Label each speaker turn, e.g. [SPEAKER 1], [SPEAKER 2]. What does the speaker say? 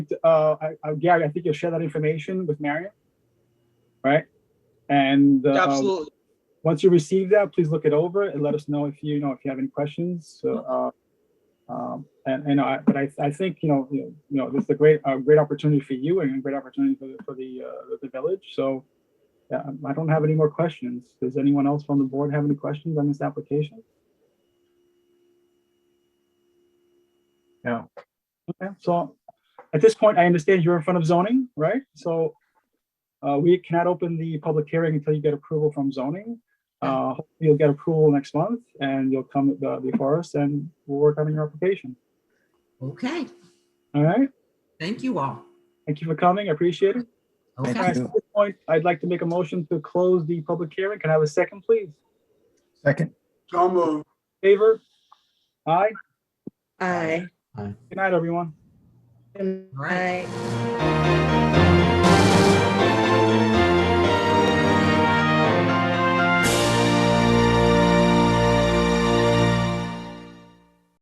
[SPEAKER 1] uh, I, I, Gary, I think you'll share that information with Marion, right? And uh,
[SPEAKER 2] Absolutely.
[SPEAKER 1] once you receive that, please look it over and let us know if you, you know if you have any questions. So, uh, um, and and I, but I, I think you know you know, you know this is a great a great opportunity for you and a great opportunity for the for the uh, the village. So. Um, I don't have any more questions. Does anyone else on the board have any questions on this application?
[SPEAKER 3] No.
[SPEAKER 1] Okay, so at this point, I understand you're in front of zoning, right? So uh, we cannot open the public hearing until you get approval from zoning. Uh, hopefully You'll get approval next month and you'll come uh, before us and we'll work on your application.
[SPEAKER 4] Okay,
[SPEAKER 1] All right,
[SPEAKER 4] thank you all.
[SPEAKER 1] thank you for coming. I appreciate it.
[SPEAKER 3] Thank
[SPEAKER 1] All
[SPEAKER 4] Okay,
[SPEAKER 1] right, so At this point, I'd like to make a motion to close the public hearing. Can I have a second, please?
[SPEAKER 3] Second,
[SPEAKER 2] So moved.
[SPEAKER 1] Favor? Aye.
[SPEAKER 5] Aye.
[SPEAKER 1] Good night, everyone.
[SPEAKER 5] Good
[SPEAKER 4] Right.
[SPEAKER 5] night.
[SPEAKER 4] All